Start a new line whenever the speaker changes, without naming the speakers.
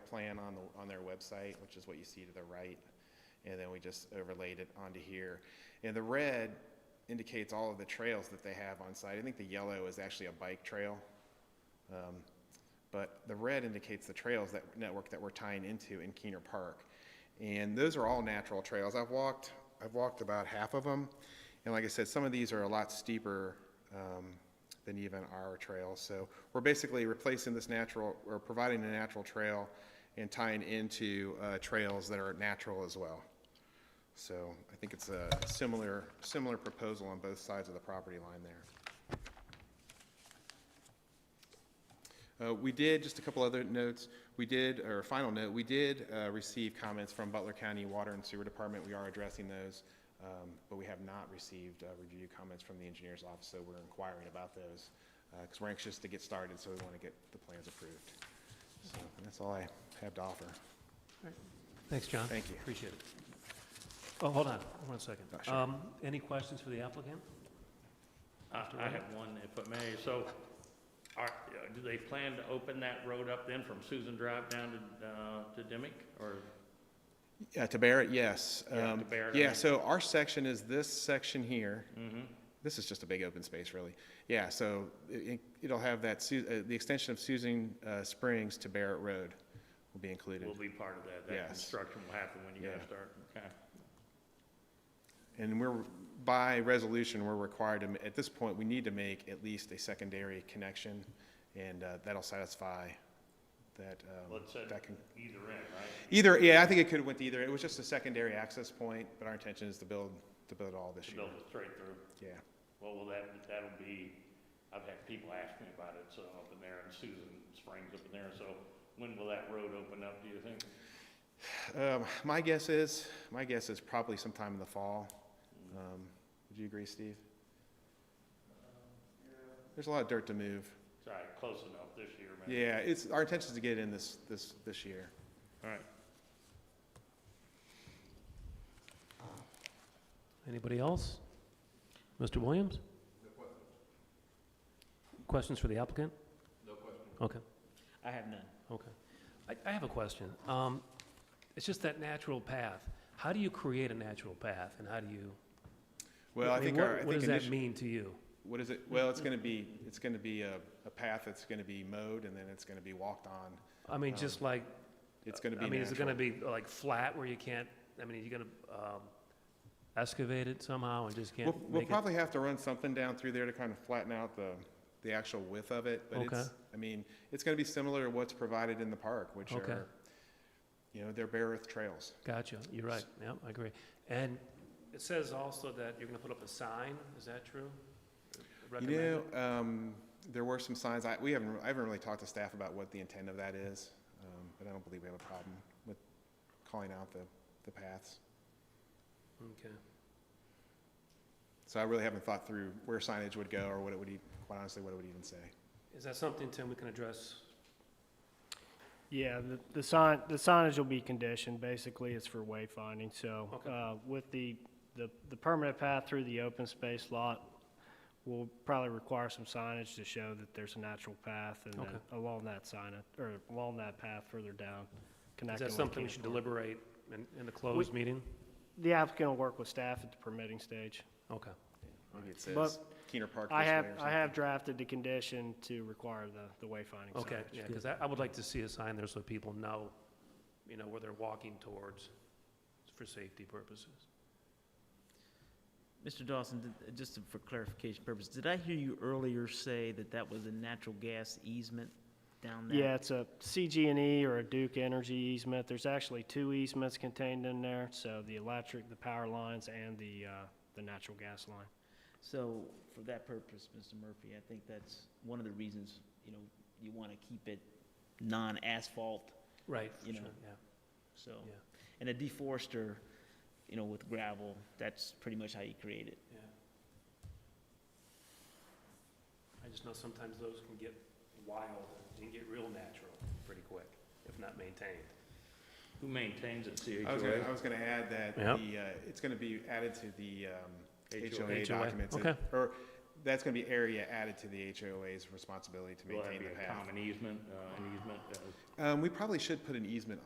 plan on, the- on their website, which is what you see to the right. And then we just overlaid it onto here. And the red indicates all of the trails that they have on site. I think the yellow is actually a bike trail. Um, But the red indicates the trails that, network that we're tying into in Keener Park. And those are all natural trails. I've walked, I've walked about half of them. And like I said, some of these are a lot steeper um, than even our trails. So we're basically replacing this natural, or providing a natural trail and tying into uh, trails that are natural as well. So I think it's a similar, similar proposal on both sides of the property line there. Uh, We did, just a couple other notes, we did, or a final note, we did uh, receive comments from Butler County Water and Sewer Department. We are addressing those, um, but we have not received uh, review comments from the engineer's office, so we're inquiring about those, because we're anxious to get started, so we want to get the plans approved. So that's all I have to offer.
Thanks, John.
Thank you.
Appreciate it. Oh, hold on, one second.
Oh, sure.
Um, Any questions for the applicant?
I I have one, if I may. So are, uh, do they plan to open that road up then from Susan Drive down to, uh, to Dimick? Or,
Yeah, to Barrett, yes.
Yeah,
Um,
to Barrett, I
Yeah,
mean.
so our section is this section here.
Mhm.
This is just a big open space, really. Yeah, so it, it'll have that, Su- uh, the extension of Susan uh, Springs to Barrett Road will be included.
will be part of that?
Yes.
That construction will happen when you guys
Yeah.
start? Okay.
And we're, by resolution, we're required to, ma- at this point, we need to make at least a secondary connection, and uh, that'll satisfy that, um,
Well, it said
that can,
either end, right?
either, yeah, I think it could have went either. It was just a secondary access point, but our intention is to build, to build all this
To
year.
build it straight through.
Yeah,
Well, will that, that'll be, I've had people ask me about it, so up in there and Susan Springs up in there. So when will that road open up, do you think?
Um, My guess is, my guess is probably sometime in the fall. Um, Would you agree, Steve? There's a lot of dirt to move.
Sorry, uh, close enough this year, man.
Yeah, it's, our intention is to get in this, this, this year.
All right.
Anybody else? Mr. Williams? Questions for the applicant? No questions.
I have none.
Okay, okay. I, I have a question. Um, It's just that natural path. How do you create a natural path, and how do you?
Well, I
mean,
think
what-
our, I
What
think
does that
initially,
mean to you?
what is it, well, it's gonna be, it's gonna be a, a path that's gonna be mowed and then it's gonna be walked on.
I mean, just like,
Um, It's gonna be
I mean, is it gonna
natural.
be like flat where you can't, I mean, are you gonna, um, excavate it somehow and just
We'll,
can't
we'll
make it?
probably have to run something down through there to kind of flatten out the, the actual width of it, but it's,
Okay.
I mean, it's gonna be similar to what's provided in the park, which
Okay.
are, you know, they're bare earth trails.
Gotcha, you're right, yeah, I agree. And it says also that you're gonna put up a sign, is that true?
You know, um, there were some signs, I, we haven't, I haven't really talked to staff about what the intent of that is, um, but I don't believe we have a problem with calling out the, the paths.
Okay,
So I really haven't thought through where signage would go or what it would, e- quite honestly, what it would even say.
is that something, Tim, we can address?
Yeah, the, the sign, the signage will be conditioned, basically it's for wayfinding, so,
Okay.
uh, with the, the, the permanent path through the open space lot, will probably require some signage to show that there's a natural path, and then
Okay.
along that sign, or along that path further down,
Is
connecting
that
with
something we
Keener
should
Park.
deliberate in, in the closed meeting?
The applicant will work with staff at the permitting stage.
Okay,
Maybe it
But
says Keener Park this
I
way
have,
or
I
something.
have drafted the condition to require the, the wayfinding signage.
okay, yeah, because I, I would like to see a sign there so people know, you know, where they're walking towards for safety purposes.
Mr. Dawson, did- just for clarification purposes, did I hear you earlier say that that was a natural gas easement down there?
Yeah, it's a CG&E E or a Duke Energy easement. There's actually two easements contained in there, so the electric, the power lines, and the, uh, the natural gas line.
So for that purpose, Mr. Murphy, I think that's one of the reasons, you know, you want to keep it non-asphalt,
Right,
You
sure,
know.
yeah,
so.
yeah,
And a deforester, you know, with gravel, that's pretty much how you create it.
yeah. I just know sometimes those can get wild, and get real natural pretty quick, if not maintained.
Who maintains it,
I was gonna, I
CHOA?
was gonna add that
Yep.
the, uh, it's gonna be added to the, um,
HOA.
HOA documents.
Okay.
Or that's gonna be area added to the HOA's responsibility to
Will that
maintain
be
the
a
path.
common easement, uh, an easement, uh,
Um, we probably should put an easement